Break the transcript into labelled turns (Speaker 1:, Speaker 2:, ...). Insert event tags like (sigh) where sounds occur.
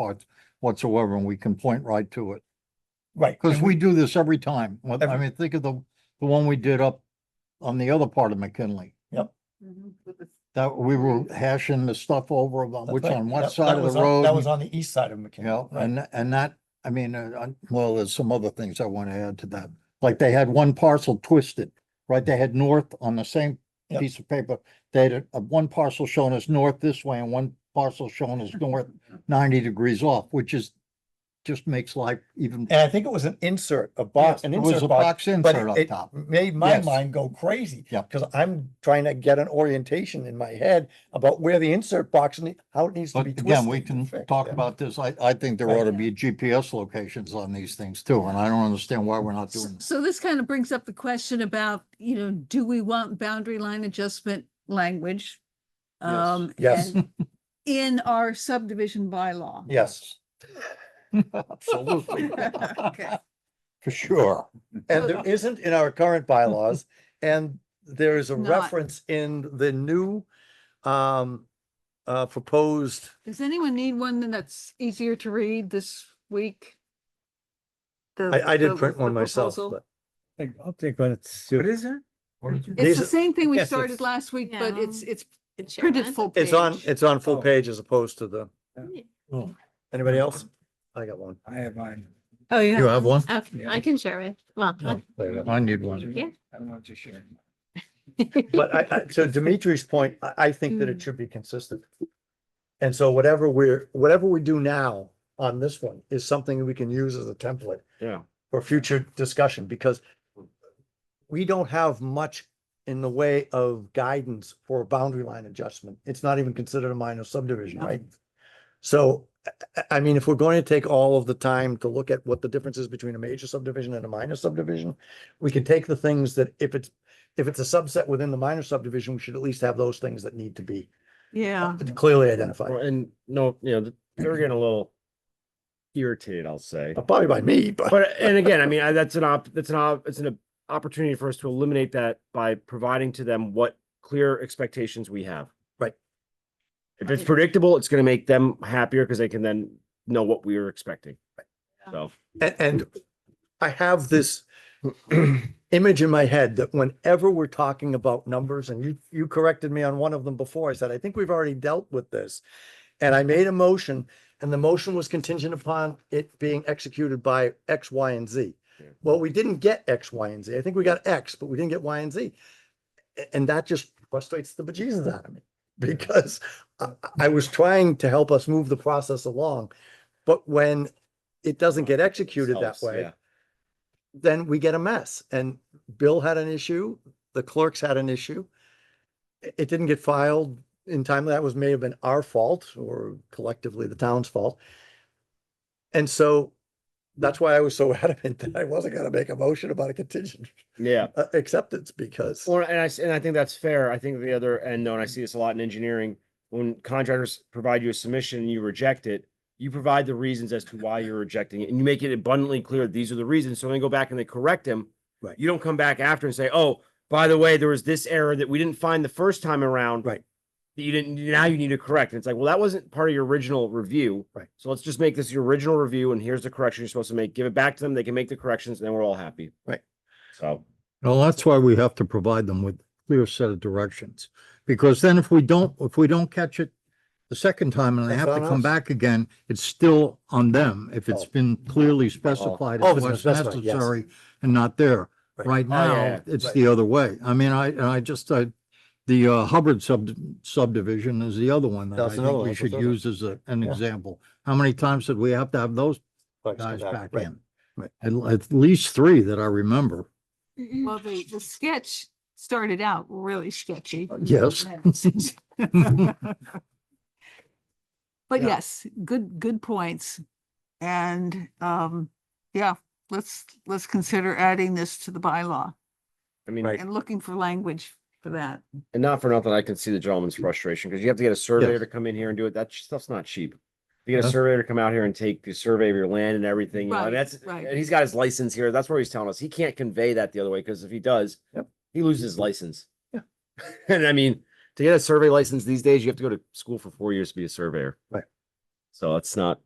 Speaker 1: part whatsoever, and we can point right to it.
Speaker 2: Right.
Speaker 1: Because
Speaker 2: and
Speaker 1: we do this every time. What- I
Speaker 2: Every-
Speaker 1: mean, think of the, the one we did up on the other part of McKinley. That we were hashing the stuff over about
Speaker 2: that's
Speaker 1: which
Speaker 2: right,
Speaker 1: on
Speaker 2: that-
Speaker 1: what
Speaker 2: that
Speaker 1: side of
Speaker 2: was
Speaker 1: the
Speaker 2: on-
Speaker 1: road.
Speaker 2: That was on the east side of
Speaker 1: You
Speaker 2: McKinley.
Speaker 1: know,
Speaker 2: right.
Speaker 1: and, and that, I mean, uh, I- well, there's some other things I want to add to that. Like they had one parcel twisted, right? They had north on the same
Speaker 2: Yep.
Speaker 1: piece of paper. They had a- a- one parcel shown as north this way and one parcel shown as north ninety degrees off, which is, just makes life even.
Speaker 2: And I think it was an insert, a box,
Speaker 1: Yeah,
Speaker 2: an
Speaker 1: it was
Speaker 2: insert
Speaker 1: a
Speaker 2: box.
Speaker 1: box
Speaker 2: But
Speaker 1: insert
Speaker 2: it-
Speaker 1: up
Speaker 2: it
Speaker 1: top.
Speaker 2: made my
Speaker 1: Yes.
Speaker 2: mind go crazy.
Speaker 1: Yep.
Speaker 2: Because I'm trying to get an orientation in my head about where the insert box and how it needs to
Speaker 1: But
Speaker 2: be twisted.
Speaker 1: again, we
Speaker 2: and
Speaker 1: can
Speaker 2: fixed,
Speaker 1: talk
Speaker 2: yeah.
Speaker 1: about this. I, I think there ought to
Speaker 3: Right.
Speaker 1: be GPS locations on these things too, and I don't understand why we're not doing.
Speaker 3: So this kind of brings up the question about, you know, do we want boundary line adjustment language?
Speaker 1: Yes.
Speaker 3: Um,
Speaker 2: Yes.
Speaker 3: and In our subdivision bylaw.
Speaker 2: Yes,
Speaker 1: (laughs) Absolutely.
Speaker 3: Okay.
Speaker 1: For sure.
Speaker 2: and there isn't in our
Speaker 1: (laughs)
Speaker 2: current bylaws, and there is a
Speaker 3: Not.
Speaker 2: reference in the new um uh proposed
Speaker 3: Does anyone need one that's easier to read this week? The-
Speaker 2: I, I
Speaker 3: the-
Speaker 2: did print
Speaker 3: the
Speaker 2: one myself,
Speaker 3: proposal?
Speaker 2: but
Speaker 4: Like, I'll take one. What is it?
Speaker 3: It's
Speaker 2: these
Speaker 3: the
Speaker 2: are-
Speaker 3: same thing we
Speaker 2: Yes,
Speaker 3: started
Speaker 2: it's-
Speaker 3: last week, but
Speaker 5: Yeah.
Speaker 3: it's, it's
Speaker 5: It's your
Speaker 3: printed
Speaker 5: aunt.
Speaker 3: full page.
Speaker 2: it's on, it's on full
Speaker 4: Oh.
Speaker 2: page as opposed to the, anybody else? I got one.
Speaker 4: I have mine.
Speaker 3: Oh, yeah.
Speaker 1: have one?
Speaker 5: Okay, I can share it. Well, (laughs) I-
Speaker 1: I need one.
Speaker 5: Yeah.
Speaker 4: I want to share.
Speaker 2: But I, I, to Dimitri's point, I, I think that it should be consistent. And so whatever we're, whatever we do now on this one is something we can use as a template.
Speaker 6: Yeah.
Speaker 2: For future discussion, because we don't have much in the way of guidance for a boundary line adjustment. It's not even considered a minor subdivision, right? So, I- I, I mean, if we're going to take all of the time to look at what the difference is between a major subdivision and a minor subdivision, we can take the things that if it's if it's a subset within the minor subdivision, we should at least have those things that need to be
Speaker 3: Yeah.
Speaker 2: clearly identified.
Speaker 6: And no, you know, th- they're getting a little irritated,
Speaker 4: (laughs)
Speaker 6: I'll say.
Speaker 2: Probably by me, but
Speaker 6: But, and again, I mean, I- that's an op, that's an, op- it's an opportunity for us to eliminate that by providing to them what clear expectations we have.
Speaker 2: Right.
Speaker 6: If it's predictable, it's gonna make them happier because they can then know what we were expecting. So,
Speaker 2: and, and I have this (clears throat) image in my head that whenever we're talking about numbers, and you, you corrected me on one of them before, I said, I think we've already dealt with this. And I made a motion, and the motion was contingent upon it being executed by X, Y, and Z.
Speaker 6: Yeah.
Speaker 2: Well, we didn't get X, Y, and Z. I think we got X, but we didn't get Y and Z. A- And that just frustrates the bejesus out of me, because I, I was trying to help us move the process along. But when it doesn't get executed that
Speaker 6: Sells,
Speaker 2: way,
Speaker 6: yeah.
Speaker 2: then we get a mess. And Bill had an issue, the clerks had an issue. It it didn't get filed in time. That was, may have been our fault or collectively the town's fault. And so that's why I was so (laughs) adamant that I wasn't gonna make a motion about a contingent
Speaker 6: yeah.
Speaker 2: uh, acceptance because,
Speaker 6: Well, and I, s- and I think that's fair. I think the other end, though, and I see this a lot in engineering, when contractors provide you a submission and you reject it, you provide the reasons as to why you're rejecting it, and you make it abundantly clear, these are the reasons. So when they go back and they correct them,
Speaker 2: Right.
Speaker 6: you don't come back after and say, oh, by the way, there was this error that we didn't find the first time around.
Speaker 2: Right.
Speaker 6: That you didn't, now you need to correct. And it's like, well, that wasn't part of your original review.
Speaker 2: Right.
Speaker 6: So let's just make this your original review, and here's the correction you're supposed to make. Give it back to them. They can make the corrections, and then we're all happy.
Speaker 2: Right.
Speaker 6: So.
Speaker 1: Well, that's why we have to provide them with clear set of directions, because then if we don't, if we don't catch it the second time and they
Speaker 2: That's
Speaker 1: have to
Speaker 2: on
Speaker 1: come
Speaker 2: us.
Speaker 1: back again, it's still on them if it's
Speaker 2: Oh.
Speaker 1: been clearly specified
Speaker 2: Oh,
Speaker 1: as
Speaker 2: it's been
Speaker 1: what's
Speaker 2: specified, yes.
Speaker 1: necessary and not there.
Speaker 2: Right.
Speaker 1: Right
Speaker 6: Oh, yeah,
Speaker 1: now,
Speaker 6: yeah,
Speaker 1: it's
Speaker 2: right.
Speaker 1: the other way. I mean, I, and I just, I, the uh, Hubbard sub subdivision is the other one that I
Speaker 2: That's another
Speaker 1: think
Speaker 2: one,
Speaker 1: we
Speaker 2: that's
Speaker 1: should
Speaker 2: another one.
Speaker 1: use as a, an
Speaker 2: Yeah.
Speaker 1: example. How many times did we have to have those
Speaker 2: Right, so
Speaker 1: guys
Speaker 2: that-
Speaker 1: back
Speaker 2: right.
Speaker 1: in?
Speaker 2: right.
Speaker 1: At, at least three that I remember. (laughs)
Speaker 3: Well, the, the sketch started out really sketchy. (laughs)
Speaker 1: Yes.
Speaker 3: But
Speaker 2: Yeah.
Speaker 3: yes, good, good points. And, um, yeah, let's, let's consider adding this to the bylaw
Speaker 6: I mean,
Speaker 2: Right.
Speaker 3: and looking for language for that.
Speaker 6: And not for nothing, I can see the gentleman's frustration because you have to get a surveyor
Speaker 1: Yes.
Speaker 6: to come in here and do it. That sh- stuff's not cheap. You
Speaker 2: Uh-huh.
Speaker 6: get a
Speaker 1: No.
Speaker 6: surveyor to come out here and take the survey of your land and everything, you know,
Speaker 3: Right,
Speaker 6: and that's,
Speaker 3: right.
Speaker 6: and he's got his license here. That's where he's telling us. He can't convey that the other way because if he does,
Speaker 2: Yep.
Speaker 6: he loses his license. (laughs)
Speaker 2: Yeah.
Speaker 6: And I mean, to get a survey license these days, you have to go to school for four years to be a surveyor.
Speaker 2: Right.
Speaker 6: So it's not,